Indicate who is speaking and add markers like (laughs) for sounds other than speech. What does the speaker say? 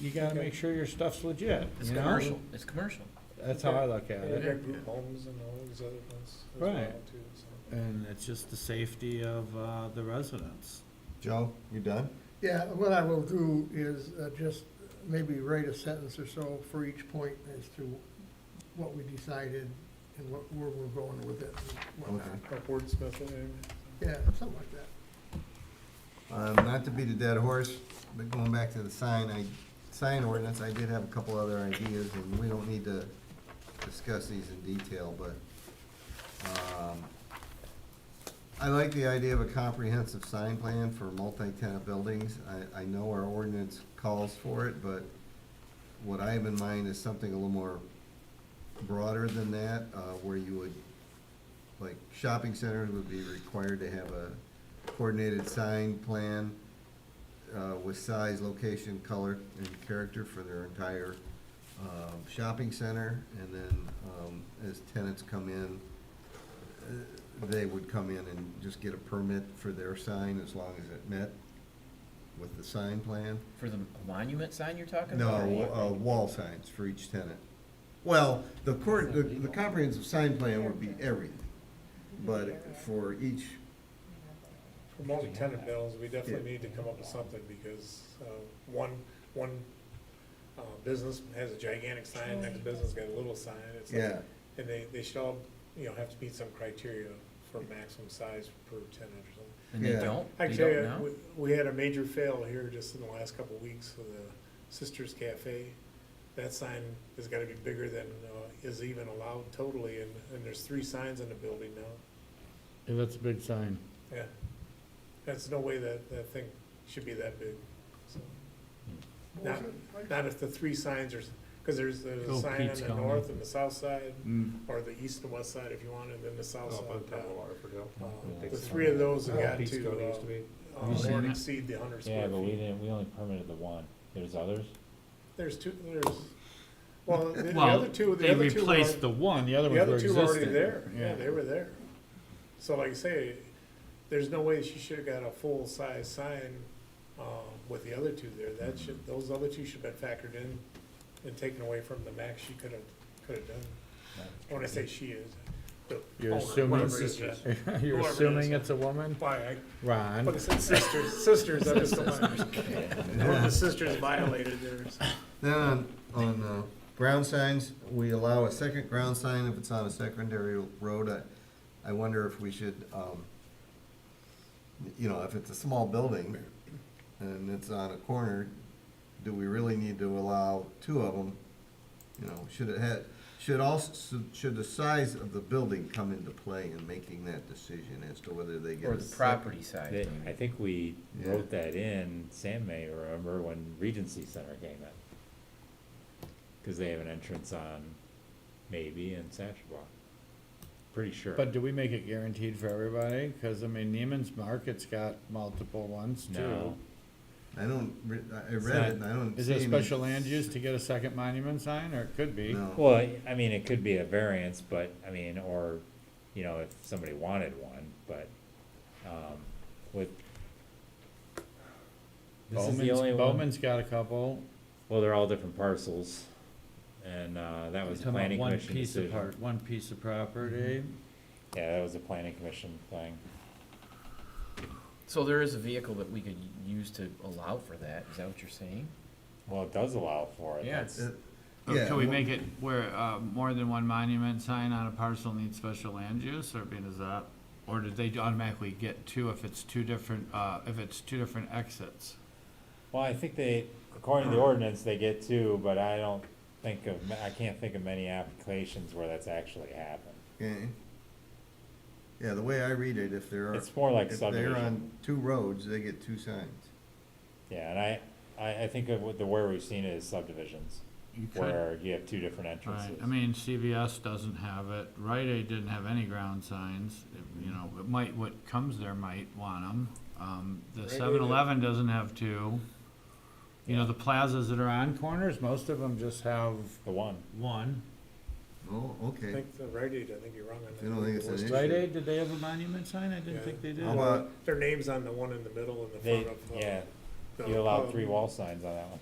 Speaker 1: you gotta make sure your stuff's legit,
Speaker 2: It's
Speaker 1: you know?
Speaker 2: commercial, it's commercial.
Speaker 1: That's how I look at
Speaker 3: And they
Speaker 1: it,
Speaker 3: got group homes and all these other ones as well
Speaker 1: Right.
Speaker 3: too, so.
Speaker 1: and it's just the safety of, uh, the residents.
Speaker 4: Joe, you done?
Speaker 5: Yeah, what I will do is uh, just maybe write a sentence or so for each point as to what we decided and what, where we're going with it and whatnot.
Speaker 4: Okay.
Speaker 3: Or wordsmith it, and-
Speaker 5: Yeah, something like that.
Speaker 4: Um, not to beat a dead horse, but going back to the sign, I, sign ordinance, I did have a couple other ideas, and we don't need to discuss these in detail, but, um, I like the idea of a comprehensive sign plan for multi-tenant buildings. I, I know our ordinance calls for it, but what I have in mind is something a little more broader than that, uh, where you would, like, shopping centers would be required to have a coordinated sign plan uh, with size, location, color, and character for their entire um, shopping center. And then um, as tenants come in, uh, they would come in and just get a permit for their sign as long as it met with the sign plan.
Speaker 2: For the monument sign you're talking about?
Speaker 4: No, uh, wall signs for each tenant. Well, the court, the, the comprehensive sign plan would be everything, but for each,
Speaker 3: For multi-tenant buildings, we definitely
Speaker 4: Yeah.
Speaker 3: need to come up with something, because, uh, one, one, uh, business has a gigantic sign, next business got a little sign, it's like,
Speaker 4: yeah.
Speaker 3: And they, they should all, you know, have to meet some criteria for maximum size per tenant or something.
Speaker 2: And they
Speaker 4: Yeah.
Speaker 2: don't, they
Speaker 3: Actually,
Speaker 2: don't
Speaker 3: uh,
Speaker 2: know?
Speaker 3: we- we had a major fail here just in the last couple of weeks with the Sisters Cafe. That sign has gotta be bigger than uh, is even allowed totally, and, and there's three signs in the building now.
Speaker 1: Yeah, that's a big sign.
Speaker 3: Yeah. That's no way that, that thing should be that big, so. Not, not if the three signs are, because there's, there's a
Speaker 1: Oh,
Speaker 3: sign on
Speaker 1: Pete's
Speaker 3: the
Speaker 1: coming.
Speaker 3: north and the south side,
Speaker 1: Mm.
Speaker 3: or the east and west side if you want, and then the south side. on top. Uh, The three of those have got to, uh, uh,
Speaker 6: Have you seen
Speaker 3: more
Speaker 6: that?
Speaker 3: exceed the hundred
Speaker 6: Yeah,
Speaker 3: square
Speaker 6: but we
Speaker 3: feet.
Speaker 6: didn't, we only permitted the one. There's others?
Speaker 3: There's two, there's, well, the the
Speaker 1: Well,
Speaker 3: other two, the
Speaker 1: they
Speaker 3: other two were, al-
Speaker 1: replaced the one, the other
Speaker 3: the
Speaker 1: ones were
Speaker 3: other two
Speaker 1: existing.
Speaker 3: were already there, yeah, they were there. So like I say, there's no way she should've got a full-size sign, uh, with the other two there, that should, those other two should've been factored in and taken away from the max she could've, could've done. When I say she is, the
Speaker 1: You're
Speaker 3: owner,
Speaker 1: assuming-
Speaker 3: Oh, whatever it is, yeah.
Speaker 1: (laughs) You're
Speaker 3: Whoever it
Speaker 1: assuming
Speaker 3: is.
Speaker 1: it's a woman?
Speaker 3: Why, I
Speaker 1: Ron,
Speaker 3: But it's sisters, sisters, I just don't mind.
Speaker 4: (laughs)
Speaker 3: Or the sisters violated theirs.
Speaker 4: Then on, on, uh, ground signs, we allow a second ground sign if it's on a secondary road. I, I wonder if we should, um, you know, if it's a small building and it's on a corner, do we really need to allow two of them? You know, should it had, should also, should the size of the building come into play in making that decision as to whether they get
Speaker 2: Or
Speaker 4: a
Speaker 2: the
Speaker 4: sec-
Speaker 2: property size?
Speaker 6: They- I
Speaker 2: maybe.
Speaker 6: think we
Speaker 4: Yeah.
Speaker 6: wrote that in, Sam may remember when Regency Center came in. Cause they have an entrance on maybe and Satchaba. Pretty sure.
Speaker 1: but do we make it guaranteed for everybody? Cause I mean, Neiman's Market's got multiple ones too.
Speaker 6: No,
Speaker 4: I don't, re- I I
Speaker 6: It's
Speaker 4: read
Speaker 6: not-
Speaker 4: it and I don't
Speaker 1: Is
Speaker 4: see
Speaker 1: it
Speaker 4: any-
Speaker 1: special land use to get a second monument sign, or it could be?
Speaker 4: No.
Speaker 6: well, I mean, it could be a variance, but, I mean, or, you know, if somebody wanted one, but, um, with. This is the
Speaker 1: Bowman's,
Speaker 6: only one.
Speaker 1: Bowman's got a couple.
Speaker 6: Well, they're all different parcels, and, uh, that was a
Speaker 1: Talking about
Speaker 6: planning
Speaker 1: one
Speaker 6: commission
Speaker 1: piece of
Speaker 6: decision.
Speaker 1: part- One piece of property.
Speaker 3: Mm-hmm.
Speaker 6: Yeah, that was a planning commission thing.
Speaker 2: So there is a vehicle that we could use to allow for that, is that what you're saying?
Speaker 6: Well, it does allow for it.
Speaker 2: Yeah.
Speaker 6: That's-
Speaker 4: Uh, Yeah,
Speaker 1: Oh, Can we
Speaker 4: well-
Speaker 1: make it where, uh, more than one monument sign on a parcel needs special land use, or I mean, is that? Or did they automatically get two if it's two different, uh, if it's two different exits?
Speaker 6: Well, I think they, according to the ordinance, they get two, but I don't think of, ma- I can't think of many applications where that's actually happened.
Speaker 4: Okay. Yeah, the way I read it, if there are,
Speaker 6: It's more like
Speaker 4: if they're
Speaker 6: subdivision.
Speaker 4: on two roads, they get two signs.
Speaker 6: Yeah, and I, I, I think of what the, where we've seen it is subdivisions,
Speaker 1: You could,
Speaker 6: where you have two different
Speaker 1: right,
Speaker 6: entrances.
Speaker 1: I mean, CVS doesn't have it, Rite Aid didn't have any ground signs, It- you know, it might, what comes there might want them. Um, the
Speaker 3: Rite Aid-
Speaker 1: seven eleven doesn't have two. You know, the plazas that are on corners, most of them just have
Speaker 6: The one,
Speaker 1: one.
Speaker 4: Oh,
Speaker 3: I
Speaker 4: okay.
Speaker 3: think the Rite Aid, I think you're wrong on that.
Speaker 4: You don't think it's an
Speaker 3: Worcester-
Speaker 4: issue?
Speaker 1: Rite Aid, did they have a monument sign? I
Speaker 3: Yeah.
Speaker 1: didn't think they did.
Speaker 4: How about,
Speaker 3: Their name's on the one in the middle and the
Speaker 6: they,
Speaker 3: front of. uh,
Speaker 6: yeah,
Speaker 3: the
Speaker 6: you allow
Speaker 3: pub.
Speaker 6: three wall signs on that one.